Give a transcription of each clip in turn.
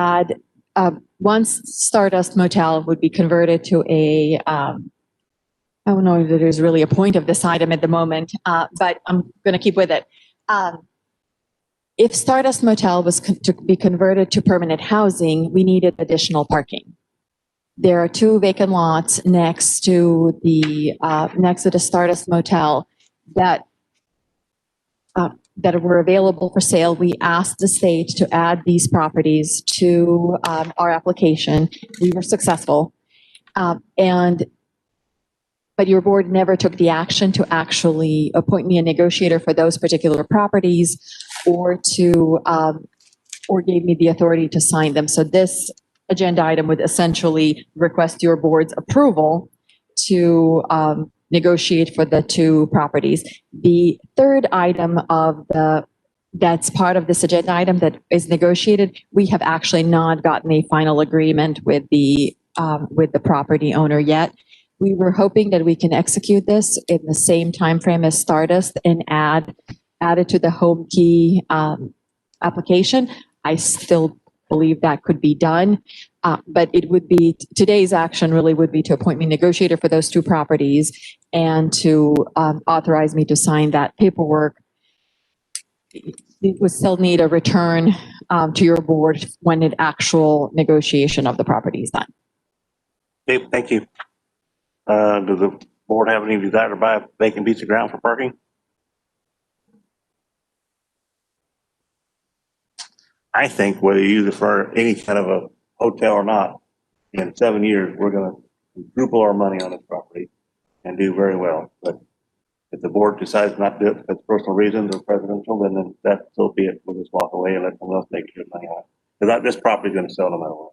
add, um, once Stardust Motel would be converted to a, um, I don't know if there's really a point of this item at the moment, uh, but I'm going to keep with it. Um, If Stardust Motel was con- to be converted to permanent housing, we needed additional parking. There are two vacant lots next to the, uh, next to the Stardust Motel that that were available for sale, we asked the state to add these properties to um, our application. We were successful. Um, And, but your board never took the action to actually appoint me a negotiator for those particular properties or to, um, or gave me the authority to sign them. So this agenda item would essentially request your board's approval to um, negotiate for the two properties. The third item of the, that's part of this agenda item that is negotiated, we have actually not gotten a final agreement with the, um, with the property owner yet. We were hoping that we can execute this in the same timeframe as Stardust and add, add it to the home key, um, application. I still believe that could be done. Uh, but it would be, today's action really would be to appoint me negotiator for those two properties and to um, authorize me to sign that paperwork. It would still need a return um, to your board when an actual negotiation of the property is done. Okay, thank you. Uh, does the board have any desire to buy a vacant piece of ground for parking? I think whether you use it for any kind of a hotel or not, in seven years, we're gonna quadruple our money on this property and do very well. But if the board decides not to do it for personal reasons or presidential, then- then that so be it. We'll just walk away and let someone else make good money on it. Because this property's gonna sell no matter what.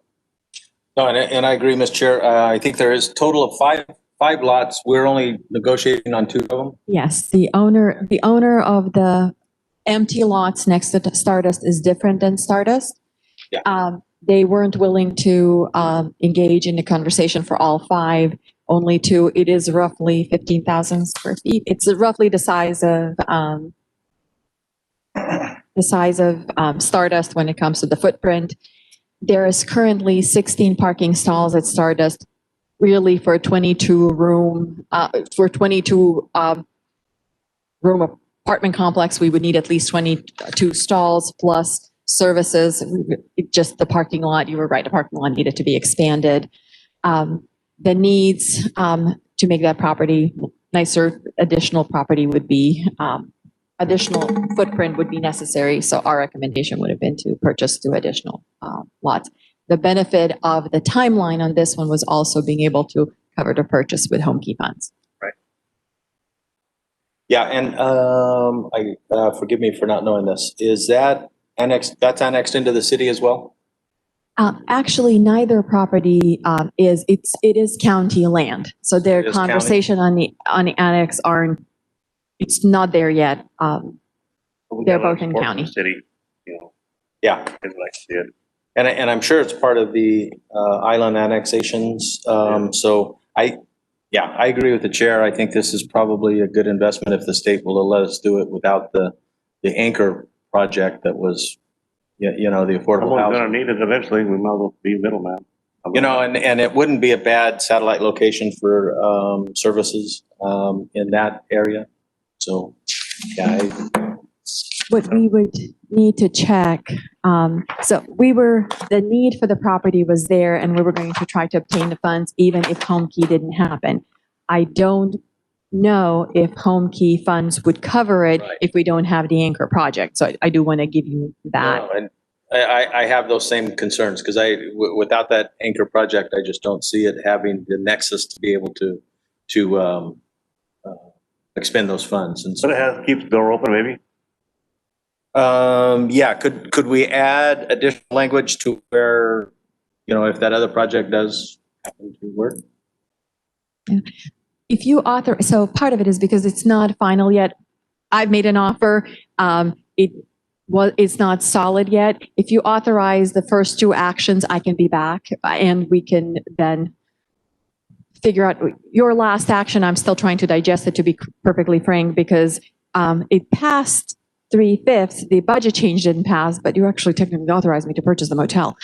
No, and, I- and I agree, Mr. Chair. Uh, I think there is total of five, five lots. We're only negotiating on two of them. Yes, the owner, the owner of the empty lots next to Stardust is different than Stardust. Yeah. Um, they weren't willing to, um, engage in a conversation for all five, only two. It is roughly 15,000 square feet. It's roughly the size of, um, the size of, um, Stardust when it comes to the footprint. There is currently 16 parking stalls at Stardust, really for a 22 room, uh, for 22, um, room apartment complex, we would need at least 22 stalls plus services. It Just the parking lot, you were right, the parking lot needed to be expanded. Um, The needs um, to make that property nicer, additional property would be, um, additional footprint would be necessary. So our recommendation would have been to purchase two additional uh, lots. The benefit of the timeline on this one was also being able to cover the purchase with home key funds. Yeah, and, um, I, uh, forgive me for not knowing this. Is that annexed, that's annexed into the city as well? Um, actually, neither property, um, is, it's, it is county land. So It their is county? conversation on the, on the annex aren't, it's not there yet. Um, We They're gotta both in support county. the City, you know, Yeah, is like I said. and, I- and I'm sure it's part of the, uh, island annexations. Um, so I, yeah, I agree with the chair. I think this is probably a good investment if the state will let us do it without the, the anchor project that was, you, you know, the affordable Someone's housing. gonna need it eventually, we might as well be middleman. You know, and, and it wouldn't be a bad satellite location for, um, services, um, in that area. So, yeah, I- what we would need to check, um, so we were, the need for the property was there and we were going to try to obtain the funds even if home key didn't happen. I don't know if home key funds would cover it Right. if we don't have the anchor project. So I, I do want to give you that. no, and I, I, I have those same concerns because I, w- without that anchor project, I just don't see it having the nexus to be able to, to, um, uh, expend those funds. And But it so, has, keeps the door open, maybe. um, yeah, could, could we add additional language to where, you know, if that other project does happen to work? If you author, so part of it is because it's not final yet. I've made an offer. Um, it was, it's not solid yet. If you authorize the first two actions, I can be back and we can then figure out your last action. I'm still trying to digest it, to be perfectly frank, because, um, it passed three fifths. The budget change didn't pass, but you actually technically authorized me to purchase the motel.